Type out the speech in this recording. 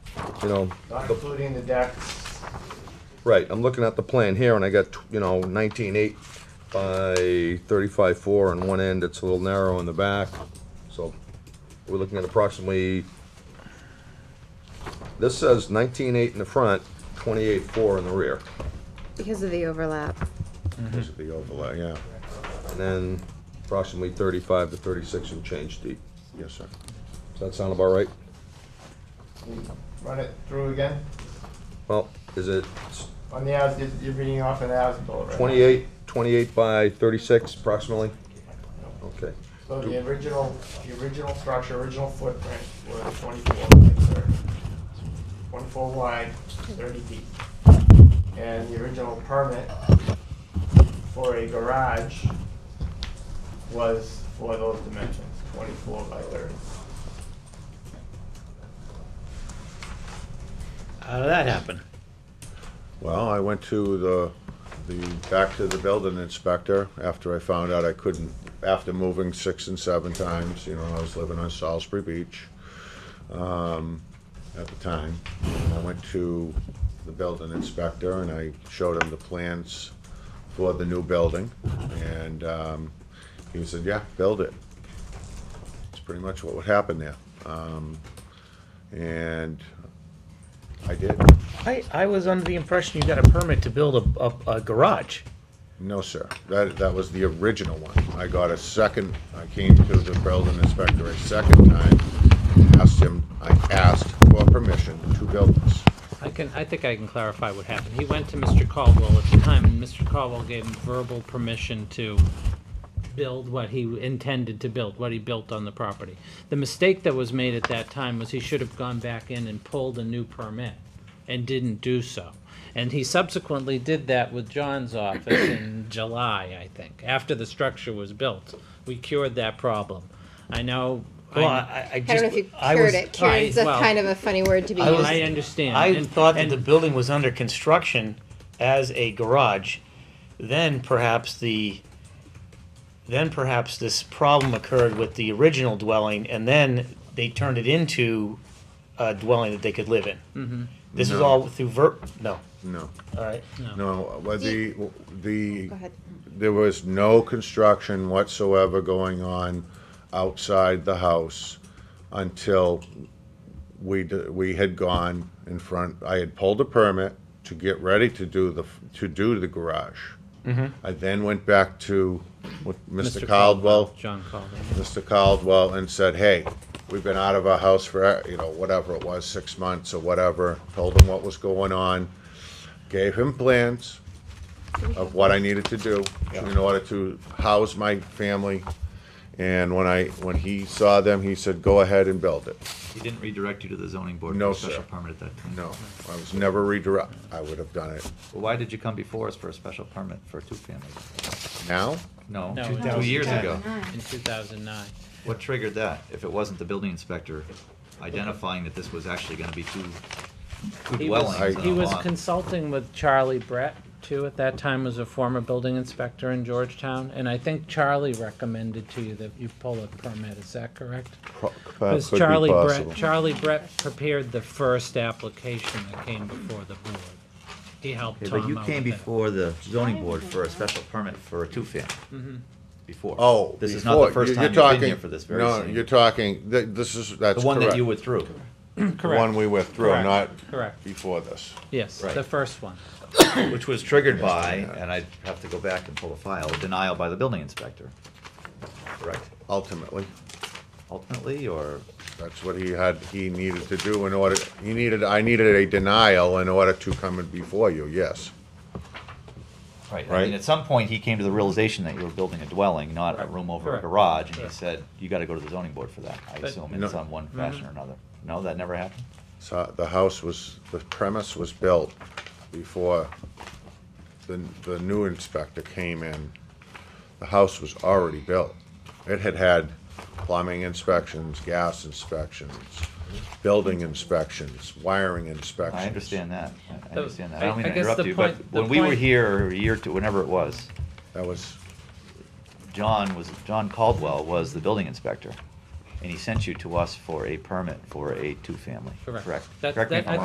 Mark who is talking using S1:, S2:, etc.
S1: you know,
S2: not including the deck.
S1: right, I'm looking at the plan here and I got, you know, nineteen eight by thirty-five four on one end, it's a little narrow in the back. So we're looking at approximately, this says nineteen eight in the front, twenty-eight four in the rear.
S3: Because of the overlap.
S1: This would be overlay, yeah. And then approximately thirty-five to thirty-six and change deep. Yes, sir. Does that sound about right?
S2: Run it through again.
S1: Well, is it
S2: On the as, you're- you're reading off an as bill, right?
S1: 28, 28 by 36 approximately? Okay,
S2: So the original, the original structure, original footprint was twenty-four, like, sir. Twenty-four wide, thirty deep. And the original permit for a garage was for those dimensions, twenty-four by thirty.
S4: How did that happen?
S5: Well, I went to the, the, back to the building inspector after I found out I couldn't, after moving six and seven times, you know, I was living on Salisbury Beach, um, at the time. And I went to the building inspector and I showed him the plans for the new building. And, um, he said, yeah, build it. It's pretty much what would happen there. Um, and I did.
S4: I, I was under the impression you got a permit to build a, a, a garage.
S5: No, sir. That, that was the original one. I got a second, I came to the building inspector a second time, asked him, I asked for permission to build this.
S6: I can, I think I can clarify what happened. He went to Mr. Caldwell at the time, and Mr. Caldwell gave him verbal permission to build what he intended to build, what he built on the property. The mistake that was made at that time was he should have gone back in and pulled a new permit, and didn't do so. And he subsequently did that with John's office in July, I think, after the structure was built. We cured that problem. I know.
S4: Well, I, I
S3: I don't
S4: just,
S3: know if you
S4: I
S3: cured
S4: was,
S3: it. Cured's a
S6: well,
S3: kind of a funny word to be
S4: I was-
S6: I
S3: used.
S6: understand.
S4: I
S6: and-
S4: thought that
S6: and-
S4: the building was under construction as a garage. Then perhaps the, then perhaps this problem occurred with the original dwelling and then they turned it into a dwelling that they could live in.
S6: Mm-hmm.
S4: This is
S5: No.
S4: all through ver, no,
S5: No,
S4: all right.
S5: no, uh, well, the, the,
S3: Go ahead.
S5: there was no construction whatsoever going on outside the house until we, d- we had gone in front, I had pulled a permit to get ready to do the, f- to do the garage. I then went back to what Mr. Caldwell,
S6: John Caldwell.
S5: Mr. Caldwell, and said, hey, we've been out of our house for, you know, whatever it was, six months or whatever, told him what was going on, gave him plans of what I needed to do in order to house my family. And when I, when he saw them, he said, go ahead and build it.
S7: He didn't redirect you to the zoning board for
S5: No,
S7: a special
S5: sir.
S7: permit at that time?
S5: No, I was never redirect, I would have done it
S7: Well, why did you come before us for a special permit for a two-family?
S5: now.
S7: No,
S6: No,
S7: two-
S6: in
S7: two years ago.
S6: 2009. In 2009.
S7: What triggered that? If it wasn't the building inspector identifying that this was actually gonna be two, two
S6: He was-
S7: dwellings Uh-huh. on
S6: He
S7: a
S6: was
S7: lot?
S6: consulting with Charlie Brett, too, at that time was a former building inspector in Georgetown, and I think Charlie recommended to you that you pull a permit, is that correct? Because Charlie Brett, Charlie Brett prepared the first application that came before the board. He helped
S7: Okay,
S6: Tom out
S7: But you came
S6: with it.
S7: before the zoning board for a special permit for a two-family?
S6: Mm-hmm.
S7: Before.
S5: Oh,
S7: This is not the
S5: before-
S7: first
S5: you're- you're
S7: time you've been here
S5: talking-
S7: for this very
S5: No,
S7: same-
S5: you're talking. Th- this is that's
S7: The one
S5: correct.
S7: that you withdrew.
S5: the one we went through,
S6: Correct.
S5: not
S6: Correct.
S5: before this.
S6: Yes,
S7: Right.
S6: the first one.
S7: Which was triggered by,
S5: yeah.
S7: and I'd have to go back and pull a file, denial by the building inspector. Correct?
S5: Ultimately,
S7: Ultimately, or?
S5: that's what he had. He needed to do in order. He needed. I needed a denial in order to come in before you. Yes.
S7: Right, I
S5: Right?
S7: mean, at some point, he came to the realization that you were building a dwelling, not a room over a
S6: Correct.
S7: garage, and he
S6: Correct.
S7: said, you gotta go to the zoning board for that, I
S6: But- Mm-hmm.
S7: assume,
S5: No.
S7: in some one fashion or another. No, that never happened?
S5: So the house was. The premise was built before the the new inspector came in. The house was already built. It had had plumbing inspections, gas inspections, building inspections, wiring inspections.
S7: I understand that, I- I
S6: The-
S7: understand that,
S6: I-
S7: I don't mean
S6: I
S7: to
S6: guess
S7: interrupt
S6: the
S7: you, but
S6: point- the
S7: when we were
S6: point-
S7: here, a year or two, whenever it was,
S5: That was,
S7: John was, John Caldwell was the building inspector, and he sent you to us for a permit for a two-family,
S6: Correct.
S7: correct?
S6: That-
S7: Correct me
S6: that-
S7: if I'm
S6: I